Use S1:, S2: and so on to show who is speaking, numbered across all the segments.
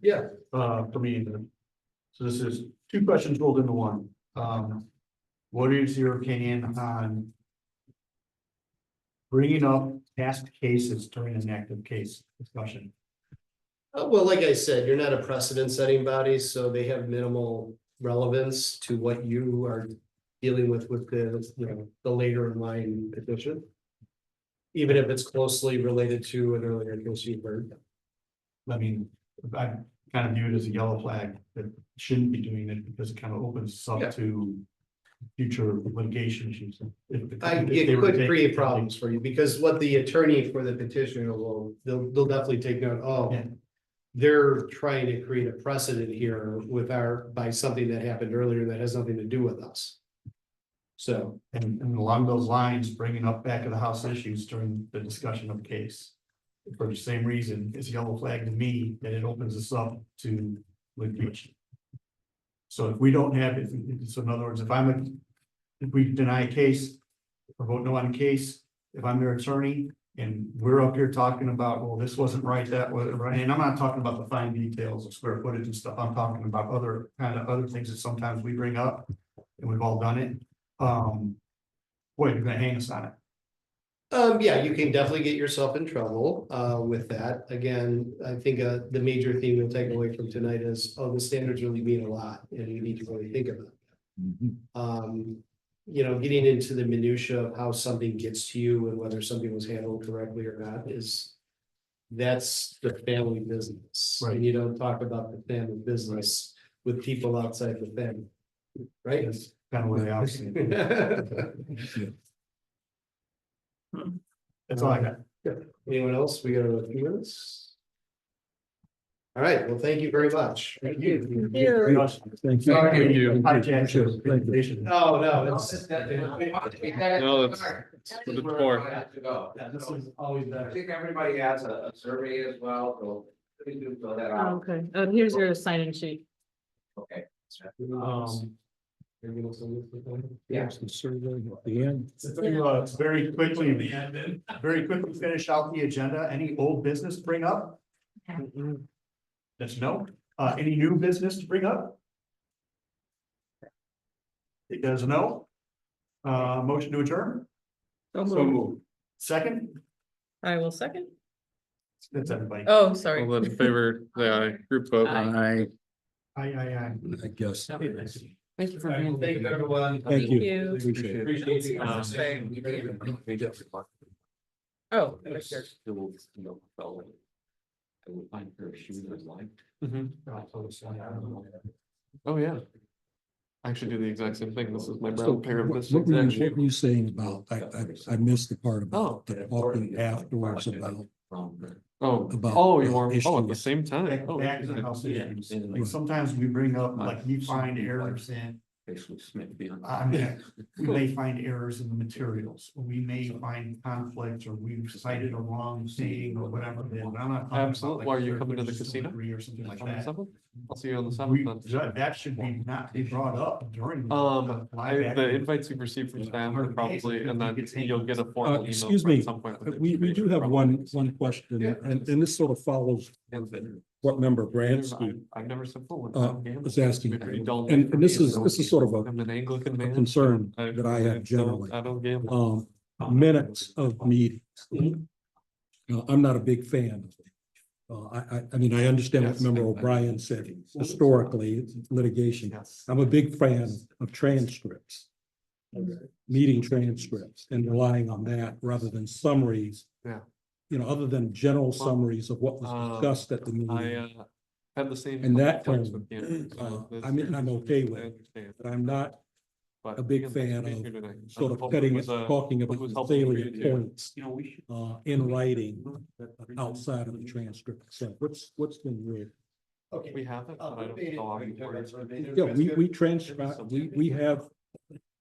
S1: Yeah. Uh, for me either. So this is two questions rolled into one. Um, what is your opinion on bringing up past cases during an active case discussion?
S2: Uh, well, like I said, you're not a precedent setting body, so they have minimal relevance to what you are dealing with with the, you know, the later in line petition. Even if it's closely related to an earlier case you've heard.
S1: I mean, I kind of view it as a yellow flag that shouldn't be doing it because it kind of opens us
S2: Yeah.
S1: up to future litigation issues. If- if-
S2: I,
S1: if they
S2: it
S1: were to
S2: could
S1: take-
S2: create problems for you, because what the attorney for the petitioner will, they'll, they'll definitely take note, oh.
S1: Yeah.
S2: They're trying to create a precedent here with our, by something that happened earlier that has nothing to do with us. So.
S1: And, and along those lines, bringing up back of the house issues during the discussion of the case. For the same reason, it's a yellow flag to me that it opens us up to litigation. So if we don't have, if- if- so in other words, if I'm a, if we deny a case. Or vote no on a case, if I'm their attorney and we're up here talking about, well, this wasn't right, that wasn't right, and I'm not talking about the fine details of square footage and stuff, I'm talking about other, kind of other things that sometimes we bring up. And we've all done it, um. Boy, you're gonna hang us on it.
S2: Um, yeah, you can definitely get yourself in trouble, uh, with that. Again, I think, uh, the major theme we'll take away from tonight is, oh, the standards really mean a lot, and you need to really think about it. Um, you know, getting into the minutia of how something gets to you and whether something was handled correctly or not is. That's the family business.
S1: Right.
S2: And you don't talk about the family business with people outside the family. Right?
S1: It's kind of where they are. seeing it. That's all I got.
S2: Anyone else? We got a few minutes? All right, well, thank you very much.
S1: Thank you.
S3: Thank you.
S1: Thank
S2: you.
S1: Hijack your presentation.
S2: Oh, no,
S3: No,
S2: it's.
S3: that's- that-
S4: No,
S3: that's-
S4: that's-
S3: that's
S4: the
S3: where
S4: floor.
S3: I have to go.
S2: Yeah, This is always
S3: I
S2: better.
S3: think everybody has a, a survey as well, so please do fill that
S5: Oh,
S3: out,
S5: Okay, uh, here's your sign-in sheet.
S3: okay?
S1: Um,
S3: Yeah.
S1: to, uh, very quickly, very quickly finish out the agenda. Any old business to bring up? Mm-hmm. That's no. Uh, any new business to bring up? It does no. Uh, motion to adjourn,
S5: So
S4: So
S5: moved.
S4: moved.
S1: second,
S5: I will second.
S1: that's everybody.
S5: Oh,
S4: All
S5: sorry.
S4: those in favor, say aye. Group vote.
S6: I,
S1: Aye, aye,
S6: I guess.
S5: Thank
S1: aye.
S5: you for
S2: Thank
S5: being. there.
S2: you, everyone.
S6: Thank you.
S4: Appreciate it.
S2: Appreciate
S3: It's
S2: you.
S3: the
S4: Um,
S3: same.
S5: Oh, right there.
S6: I would find her if she was like.
S4: Oh, yeah. I actually do the exact same thing. This is my
S6: So
S4: brown
S6: what
S4: pair of this
S6: what were
S4: exact
S6: you, what
S4: shape.
S6: were you saying about, I, I, I missed the part
S4: Oh.
S6: about the talking afterwards about.
S4: Oh,
S6: about
S4: oh, you
S6: the
S4: are, oh, at the
S6: issues.
S4: same time.
S1: Back
S4: Oh,
S1: back to the house
S6: Yeah.
S1: issues. Like sometimes we bring up, like you find errors in,
S6: Basically Smith
S2: Uh,
S6: beyond.
S1: I mean, we may find errors in the materials. or We may find conflicts or we've cited a wrong saying or whatever. it is, but I'm not talking about,
S4: Absolutely.
S1: like,
S4: Why are you
S1: third
S4: coming to the
S1: versus
S4: casino?
S1: delivery Or something like
S4: Oh. On the
S1: that.
S4: seventh? I'll see you on the
S1: We-
S4: seventh then.
S1: ju- That should be not be brought up during.
S4: Um, I,
S1: live
S4: the
S1: action.
S4: invites you've received from staff are probably, and then you'll get a
S6: Uh,
S4: formal email
S6: excuse
S4: from
S6: me, Uh,
S4: some point. with
S6: we, we do
S4: information
S6: have
S4: from
S6: one,
S4: it.
S6: one question,
S4: Yeah.
S6: and, and this sort of follows what member Bransky
S4: I've never said. full with
S6: uh,
S4: that game.
S6: was asking.
S4: It's pretty dull
S6: And,
S4: for
S6: and this
S4: me,
S6: is,
S4: so
S6: this is sort of a
S4: I'm an Anglican
S6: a
S4: man.
S6: concern
S4: I-
S6: that I
S4: I
S6: have
S4: don't-
S6: generally,
S4: I don't gamble.
S6: um, minutes of meetings. Uh, I'm not a big fan. of it. Uh, I, I, I mean, I understand what
S4: Yes.
S6: Member O'Brien said historically, it's litigation.
S4: Yes.
S6: I'm a big fan of transcripts.
S5: Mhm.
S6: Meeting transcripts and relying on that rather than summaries.
S4: Yeah.
S6: You know, other than general summaries of what
S4: um,
S6: was discussed at the
S4: I
S6: meeting,
S4: uh had the same.
S6: And that
S4: conflicts
S6: one,
S4: with Gannon, so
S6: uh,
S4: this-
S6: I mean, I'm okay with
S4: I
S6: it.
S4: understand,
S6: but I'm not
S4: but
S6: a big
S4: again, thanks
S6: fan
S4: for being
S6: of
S4: here tonight. I'm
S6: sort of
S4: hoping uh,
S6: cutting,
S4: was
S6: it,
S4: a-
S6: talking about
S4: was
S6: the
S4: helpful for you
S6: salient
S4: to do.
S6: points. You know, we should. Uh, in writing, outside of the transcript, so what's, what's been read?
S2: Okay.
S4: We haven't, but I don't know. how many words.
S6: Yeah, we, we transcribe, we, we have,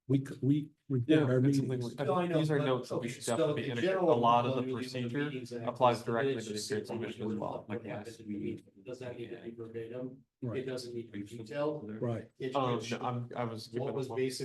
S6: we, c- we
S4: Yeah,
S6: record our
S4: it's something
S6: meetings.
S4: we- I think These are notes that we should definitely integrate. A lot of the procedure applies directly to the appearance commission as well, like last meeting.
S2: Doesn't need to be verbatim, it
S6: Right,
S2: doesn't need to be detailed.
S6: right.
S2: It
S4: Um,
S2: should-
S4: no, I'm, I was.
S2: What
S4: giving
S2: was
S4: one.
S2: basically